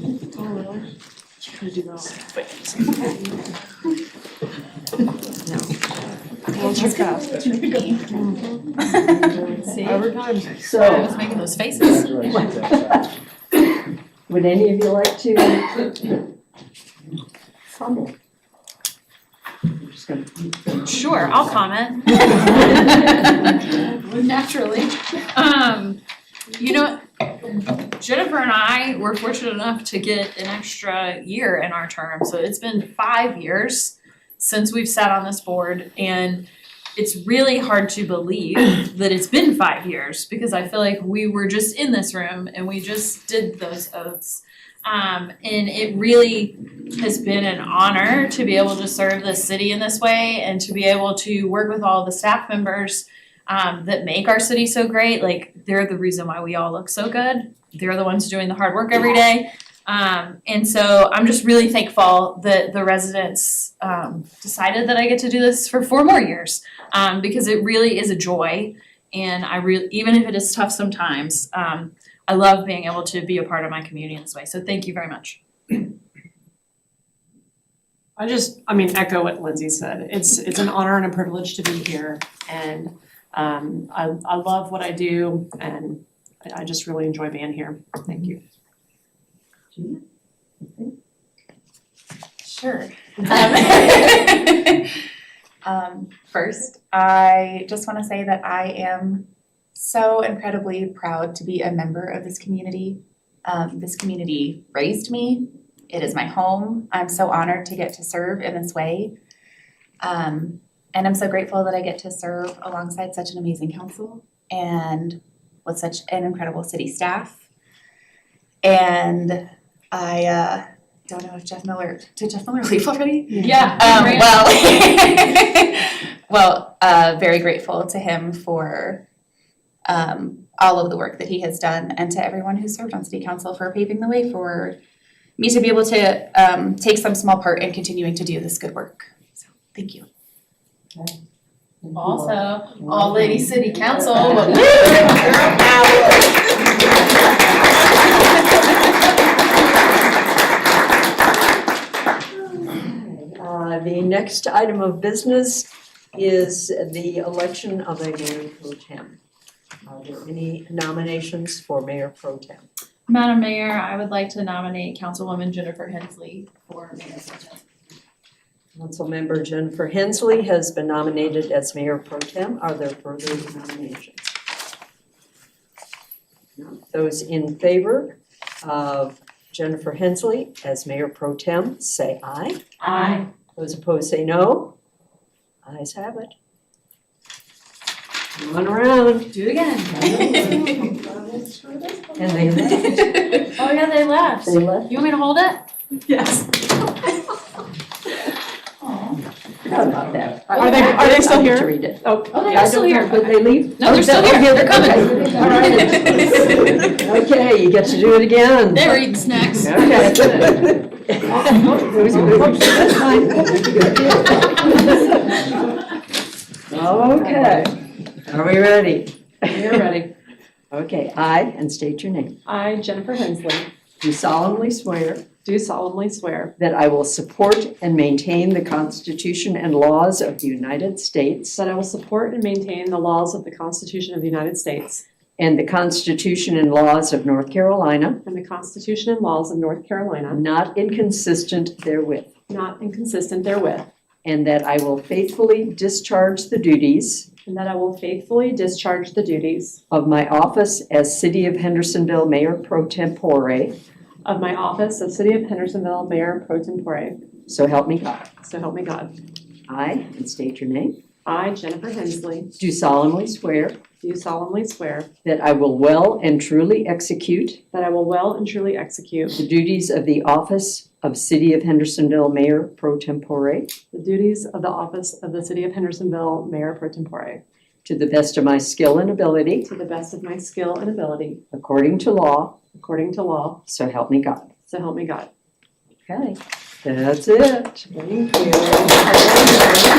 little. Try to do that. Well, check that. See? Overtime. I So, was making those faces. would any of you like to fumble? I'm just gonna- Sure, I'll comment. Naturally. Um, you know, Jennifer and I were fortunate enough to get an extra year in our term, so it's been five years since we've sat on this board and it's really hard to believe that it's been five years because I feel like we were just in this room and we just did those oaths. Um, and it really has been an honor to be able to serve the city in this way and to be able to work with all the staff members um, that make our city so great. Like, they're the reason why we all look so good. They're the ones doing the hard work every day. Um, and so I'm just really thankful that the residents um, decided that I get to do this for four more years um, because it really is a joy. And I really, even if it is tough sometimes, um, I love being able to be a part of my community in this way. So thank you very much. I just, I mean, echo what Lindsay said. It's, it's an honor and a privilege to be here. And um, I, I love what I do and I I just really enjoy being here. Thank you. Sure. Um, um, first, I just want to say that I am so incredibly proud to be a member of this community. Um, this community raised me. It is my home. I'm so honored to get to serve in this way. Um, and I'm so grateful that I get to serve alongside such an amazing council and with such an incredible city staff. And I uh, don't know if Jeff Miller, did Jeff Miller leave already? Yeah, Um, well, well, uh, very grateful to him for um, all of the work that he has done, and to everyone who served on city council for paving the way for me to be able to um, take some small part in continuing to do this good work. So, thank you. Also, all lady city council, but woo, girl Uh, the next item of business is the election of a mayor pro tem. Are there any nominations for mayor pro tem? Madam Mayor, I would like to nominate Councilwoman Jennifer Hensley for mayor pro tem. Councilmember Jennifer Hensley has been nominated as mayor pro tem. Are there further nominations? No. Those in favor of Jennifer Hensley as mayor pro tem, say aye. Aye. Those opposed say no. Ayes have it. Run around. Do it again. And they left. Oh, yeah, they left. They left. You want me to hold it? Yes. Forgot about that. Are they- are they still here? I need to read it. Oh, I don't know, Did they leave? No, they're still here. They're coming. All right. Okay, you get to do it again. They're eating snacks. Okay. Those are good. That's fine. Okay. Are we ready? You're ready. Okay, I, and state your name. I, Jennifer Hensley, Do solemnly swear do solemnly swear That I will support and maintain the Constitution and laws of the United States that I will support and maintain the laws of the Constitution of the United States and the Constitution and laws of North Carolina, and the Constitution and laws of North Carolina, not inconsistent therewith, not inconsistent therewith, and that I will faithfully discharge the duties and that I will faithfully discharge the duties of my office as City of Hendersonville Mayor pro tempore, of my office of City of Hendersonville Mayor Pro Tempore. so help me God. So help me God. I, and state your name, I, Jennifer Hensley, do solemnly swear do solemnly swear that I will well and truly execute that I will well and truly execute the duties of the office of City of Hendersonville Mayor pro tempore the duties of the office of the City of Hendersonville Mayor Pro Tempore To the best of my skill and ability, to the best of my skill and ability, according to law, according to law. so help me God. So help me God. Okay. That's it. Thank you.